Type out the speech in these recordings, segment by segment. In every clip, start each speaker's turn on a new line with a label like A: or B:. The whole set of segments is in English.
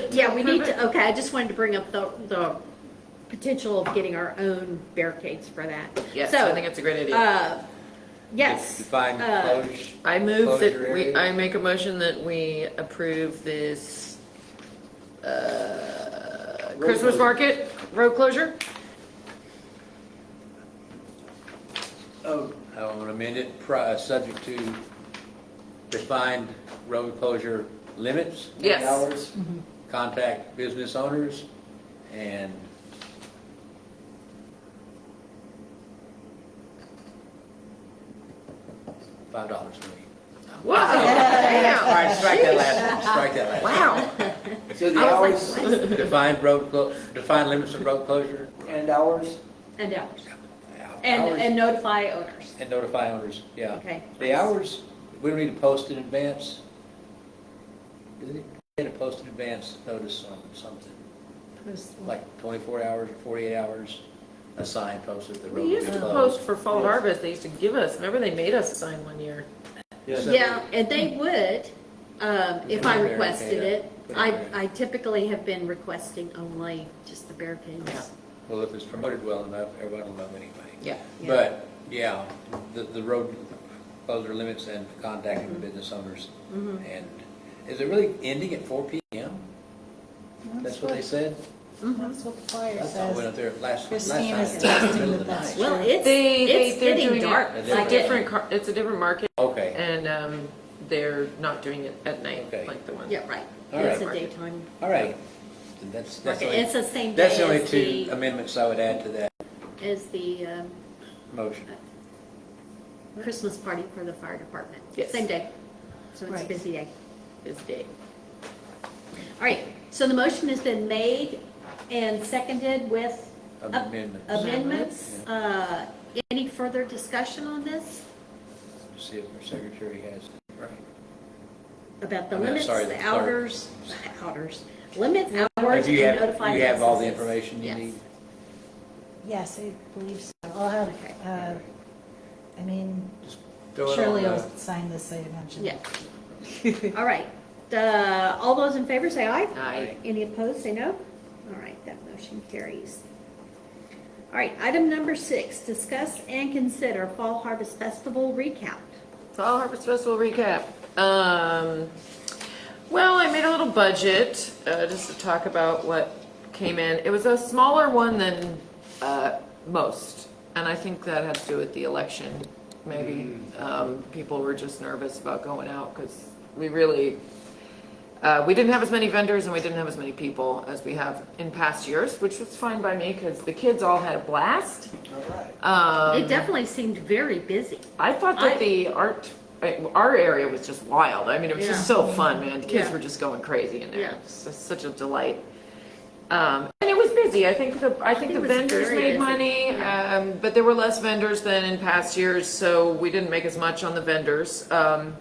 A: it.
B: Yeah, we need to, okay, I just wanted to bring up the, the potential of getting our own barricades for that.
A: Yes,
B: So,
A: I think it's a great idea.
B: uh, Yes.
C: Define
B: uh,
C: closure.
A: I move that
C: Closure
A: we,
C: area.
A: I make a motion that we approve this, uh,
C: Road
A: Christmas
C: closure.
A: market, road closure?
C: Oh. I want to amend it, pri- uh, subject to defined road closure limits.
A: Yes.
C: Hours, contact business owners, and five dollars a week.
A: Whoa,
C: All
A: wow,
C: right, strike that last, one, strike that last.
A: wow.
D: So the
A: I
D: hours
A: was like, what?
C: one. Defined road, clo- defined limits of road closure.
D: and hours,
B: And ours.
C: Hours.
B: And, and notify owners.
C: And notify owners, yeah.
B: Okay.
C: The hours, we don't need to post in advance. Do they Get a post in advance notice on something, like twenty-four hours or forty-eight hours, a sign posted at the road.
A: We used to
C: will be
A: post
C: closed.
A: for fall harvest, they used to give us, remember they made us sign one year?
C: Yeah.
B: Yeah, and they would, um, if I
C: Put a
B: requested
C: barricade
B: it.
C: up. Put a
B: I,
C: barricade.
B: I typically have been requesting only just the
A: Yeah.
B: barricades.
C: Well, if it's promoted well enough, everybody will know anyway.
A: Yeah.
B: Yeah.
C: But, yeah, the, the road closure limits and contacting the
A: Mm-hmm.
C: business owners. And is it really ending at four P M? That's what they said?
B: Mm-hmm.
E: That's what the flyer
C: I thought I went
E: says.
C: up there last, last night.
E: Christina's
C: in the middle
E: texting
C: of
E: that
C: the
E: that's
C: night.
E: true.
B: Well, it's,
A: They, they,
B: it's
A: they're
B: getting
A: doing
B: dark.
A: it,
C: A
A: it's
C: different-
A: a different, car- it's a different market,
C: Okay,
A: and, um, they're not doing it at night,
C: Okay.
A: like the one.
B: Yeah, right.
C: All
B: It's a
A: right.
B: daytime.
C: all right. And That's, that's the
B: It's
C: only,
B: the same day
C: that's the only
B: as
C: two
B: the,
C: amendments I would add to that
B: as the, um,
C: motion.
B: Christmas party for the fire department.
A: Yes.
B: Same day. So it's a
E: Right.
B: busy day.
A: It's day.
B: All right, so the motion has been made and seconded with up-
C: Amendments.
B: amendments. Uh, Any further discussion on this?
C: See if our secretary has, right.
B: About the
C: I'm
B: limits,
C: sorry, the
B: the
C: clerk.
B: outers, outers, limits, hours,
C: Do you
B: and
C: have,
B: notify.
C: you have all the
B: businesses.
C: information you
B: Yes.
C: need?
E: Yes, I believe so. I'll have,
B: Okay.
E: uh, I mean,
C: Just throw it on
E: surely
C: the-
E: I'll sign this, I imagine.
B: Yeah. All right, Uh, all those in favor say aye.
A: Aye.
B: Any opposed, say no. All right, that motion carries. All right, item number six, discuss and consider Fall Harvest Festival recount.
A: Fall Harvest Festival recap. Um, well, I made a little budget uh, just to talk about what came in. It was a smaller one than uh, most, and I think that had to do with the election. Maybe um, people were just nervous about going out because we really uh, we didn't have as many vendors and we didn't have as many people as we have in past years, which was fine by me because the kids all had a blast. Um,
B: It definitely seemed very busy.
A: I thought
B: I-
A: that the art, I- our area was just wild. I mean, it was just
B: Yeah.
A: so fun, man. The kids
B: Yeah.
A: were just going crazy in there.
B: Yeah.
A: It was just such a delight. Um, and it was busy. I think the I think
B: it
A: the
B: was
A: vendors
B: very busy.
A: made money,
B: Yeah.
A: um, but there were less vendors than in past years, so we didn't make as much on the vendors. Um,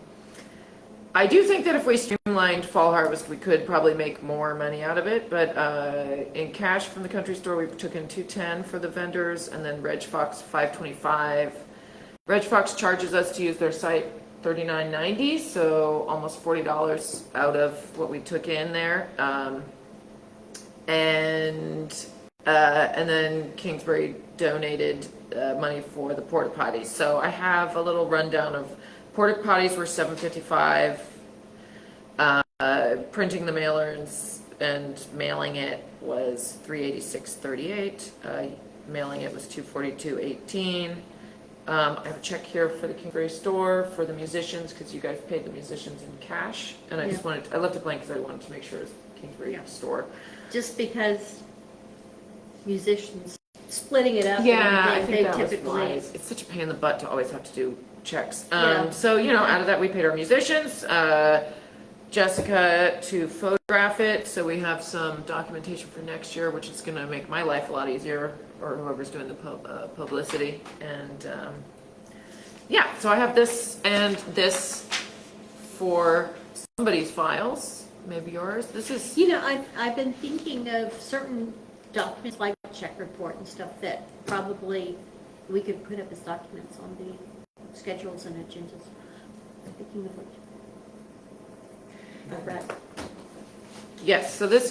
A: I do think that if we streamlined Fall Harvest, we could probably make more money out of it, but uh, in cash from the country store, we took in 210 for the vendors, and then Reg Fox 525. Reg Fox charges us to use their site 39.90, so almost $40 out of what we took in there. Um, and uh, and then Kingsbury donated uh, money for the porta potties. So I have a little rundown of porta potties were seven fifty five. Uh, printing the mailers and mailing it was three eighty six thirty eight. Uh, mailing it was two forty two eighteen. Um, I have a check here for the Kingsbury store for the musicians because you guys paid the musicians in cash, and I just
B: Yeah.
A: wanted I left it blank because I wanted to make sure it's Kingsbury
B: Yeah.
A: store.
B: just because musicians splitting it up.
A: Yeah, I
B: and they-
A: think
B: they
A: that was
B: typically-
A: wise. It's such a pain in the butt to always have to do checks.
B: Yeah.
A: Um, so, you know, out of that, we paid our musicians, uh, Jessica to photograph it, so we have some documentation for next year, which is gonna make my life a lot easier, or whoever's doing the pub, uh, publicity, and, um, yeah, so I have this and this for somebody's files, maybe yours, this is
B: You know, I've, I've been thinking of certain documents like check report and stuff that probably we could put up as documents on the schedules and agendas. Speaking of which. All right.
A: Yes, so this